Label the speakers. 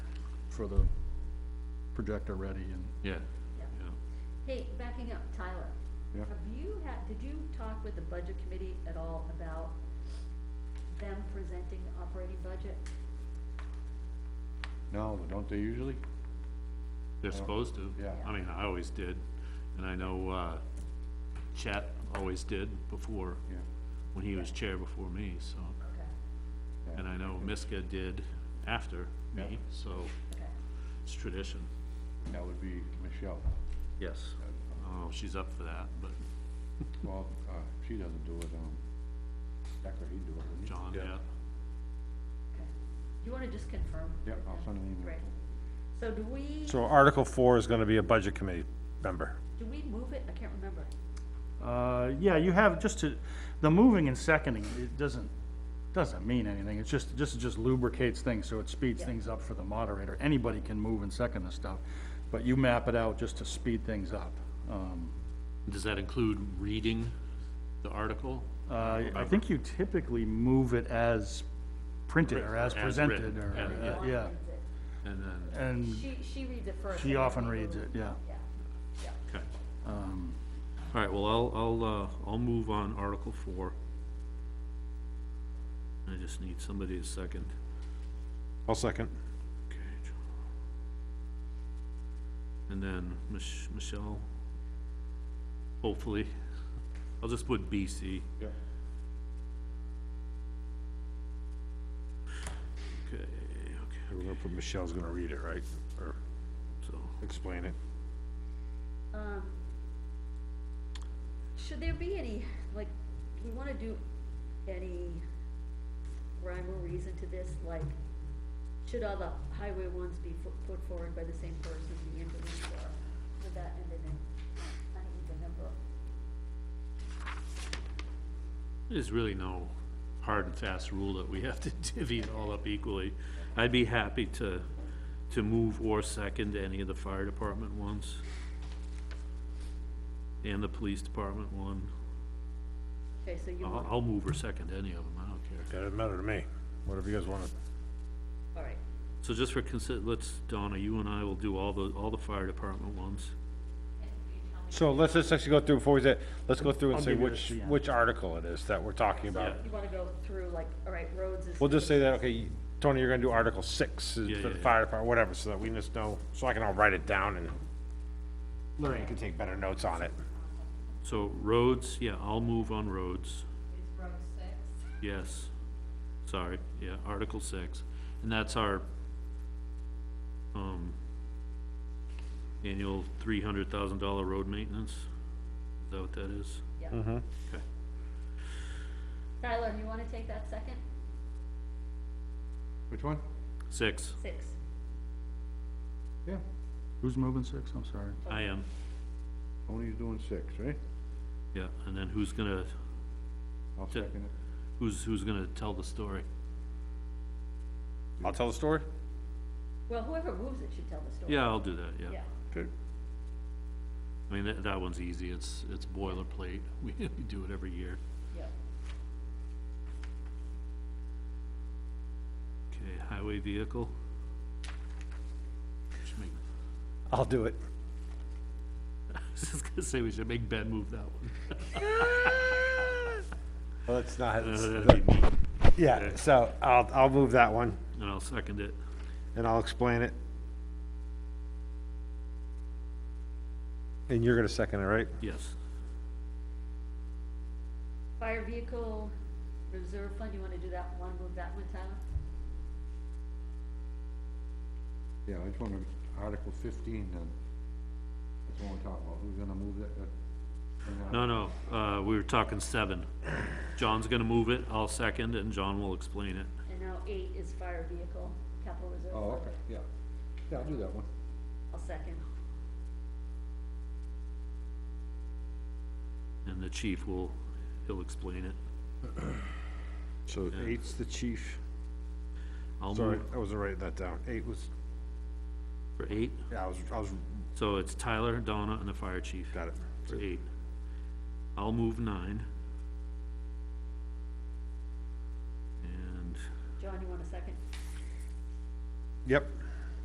Speaker 1: for the projector ready and,
Speaker 2: yeah,
Speaker 3: Yeah.
Speaker 2: yeah.
Speaker 3: Hey, backing up, Tyler.
Speaker 1: Yeah.
Speaker 3: Have you had, did you talk with the budget committee at all about them presenting the operating budget?
Speaker 1: no, don't they usually?
Speaker 2: They're supposed to.
Speaker 1: Yeah.
Speaker 2: I mean, I always did, and I know, uh, Chet always did before,
Speaker 1: Yeah.
Speaker 2: when he was chair before me, so.
Speaker 3: Okay,
Speaker 1: yeah.
Speaker 2: And I know Miska did after me,
Speaker 1: Yeah.
Speaker 2: so
Speaker 3: okay.
Speaker 2: it's tradition.
Speaker 1: That would be Michelle.
Speaker 2: Yes. I don't know if she's up for that, but
Speaker 1: Well, uh, she doesn't do it, um, Decker, he'd do it, wouldn't he?
Speaker 2: John, yeah.
Speaker 3: Okay. Do you wanna just confirm?
Speaker 1: Yeah, I'll
Speaker 3: with them?
Speaker 1: send an email.
Speaker 3: Great. So do we,
Speaker 4: So Article four is gonna be a budget committee member.
Speaker 3: do we move it? I can't remember.
Speaker 5: Uh, yeah, you have, just to, the moving and seconding, it doesn't, doesn't mean anything, it's just, just, just lubricates things, so it speeds
Speaker 3: Yeah.
Speaker 5: things up for the moderator. Anybody can move and second this stuff, but you map it out just to speed things up. Um,
Speaker 2: Does that include reading the article?
Speaker 5: uh, I think you typically move it as printed, or as
Speaker 2: As
Speaker 5: presented,
Speaker 2: written,
Speaker 5: or,
Speaker 2: yeah.
Speaker 5: uh,
Speaker 3: Dawn
Speaker 5: yeah,
Speaker 3: reads it.
Speaker 2: And then,
Speaker 5: and
Speaker 3: She, she reads it first.
Speaker 5: she
Speaker 3: and then
Speaker 5: often
Speaker 3: we
Speaker 5: reads
Speaker 3: move.
Speaker 5: it, yeah.
Speaker 3: Yeah, yeah.
Speaker 2: okay.
Speaker 5: Um,
Speaker 2: All right, well, I'll, I'll, uh, I'll move on Article Four. I just need somebody to second.
Speaker 4: I'll second.
Speaker 2: Okay, John. And then Mich- Michelle, hopefully, I'll just put BC,
Speaker 1: Yeah.
Speaker 2: okay, okay,
Speaker 4: We're gonna put Michelle's gonna read it, right? Or
Speaker 2: so,
Speaker 4: explain it.
Speaker 3: Um, Should there be any, like, do we wanna do any rhyme or reason to this, like, should all the highway ones be fo- put forward by the same person, the ambulance, or would that end in an uneven number?
Speaker 2: there's really no hard and fast rule that we have to divvy it all up equally. I'd be happy to, to move or second any of the fire department ones. And the police department one,
Speaker 3: Okay, so
Speaker 4: Uh-huh.
Speaker 3: you
Speaker 2: I'll,
Speaker 3: want,
Speaker 2: I'll move or second any of them, I don't care.
Speaker 4: That doesn't matter to me. Whatever you guys wanna,
Speaker 3: all right,
Speaker 2: So just for consider, let's, Donna, you and I will do all the, all the fire department ones.
Speaker 4: so let's just actually go through before we say, let's go through and
Speaker 5: I'll
Speaker 4: say
Speaker 5: give you
Speaker 4: which,
Speaker 5: this, yeah.
Speaker 4: which article it is that we're talking about.
Speaker 3: you wanna go through, like, all right, roads is.
Speaker 4: We'll just say that, okay, Tony, you're gonna do Article six is
Speaker 2: Yeah,
Speaker 4: for
Speaker 2: yeah,
Speaker 4: the
Speaker 2: yeah.
Speaker 4: fire department, whatever, so that we just know, so I can all write it down and Lorraine can take better notes on it.
Speaker 2: So roads, yeah, I'll move on roads,
Speaker 6: It's row six.
Speaker 2: yes. Sorry, yeah, Article six, and that's our, um, annual three hundred thousand dollar road maintenance, is that what that is?
Speaker 3: Yeah.
Speaker 2: Okay,
Speaker 3: Tyler, you wanna take that second?
Speaker 1: Which one?
Speaker 2: six,
Speaker 3: Six.
Speaker 1: Yeah,
Speaker 5: Who's moving six, I'm sorry?
Speaker 2: I am,
Speaker 1: Tony's doing six, right?
Speaker 2: yeah, and then who's gonna,
Speaker 1: I'll
Speaker 2: Yeah.
Speaker 1: second it.
Speaker 2: who's, who's gonna tell the story?
Speaker 4: I'll tell the story?
Speaker 3: Well, whoever moves it should tell the story.
Speaker 2: Yeah, I'll do that, yeah.
Speaker 3: Yeah,
Speaker 1: Okay.
Speaker 2: I mean, that, that one's easy, it's, it's boilerplate, we do it every year.
Speaker 3: yeah.
Speaker 2: Okay, highway vehicle. Should make-
Speaker 4: I'll do it.
Speaker 2: I was just gonna say, we should make Ben move that one.
Speaker 4: Well, it's not,
Speaker 2: Uh,
Speaker 4: it's-
Speaker 2: that'd be me,
Speaker 4: yeah, so I'll, I'll move that one
Speaker 2: And I'll second it.
Speaker 4: and I'll explain it. And you're gonna second it, right?
Speaker 2: Yes,
Speaker 3: Fire vehicle reserve fund, you wanna do that one, move that one, Tyler?
Speaker 1: Yeah, I just want to, Article fifteen then. That's what we're talking about, who's gonna move that, uh, bring that?
Speaker 2: no, no, uh, we were talking seven. John's gonna move it, I'll second, and John will explain it.
Speaker 3: And now eight is fire vehicle, capital reserve
Speaker 1: Oh,
Speaker 3: fund.
Speaker 1: okay, yeah. Yeah, I'll do that one.
Speaker 3: I'll second.
Speaker 2: And the chief will, he'll explain it.
Speaker 4: So eight's the chief.
Speaker 2: I'll
Speaker 4: Sorry,
Speaker 2: move
Speaker 4: I wasn't writing that down. Eight was,
Speaker 2: for eight,
Speaker 4: yeah, I was, I was,
Speaker 2: so it's Tyler, Donna, and the fire chief
Speaker 4: got it.
Speaker 2: for eight. I'll move nine. And
Speaker 3: John, you want a second?
Speaker 4: Yep,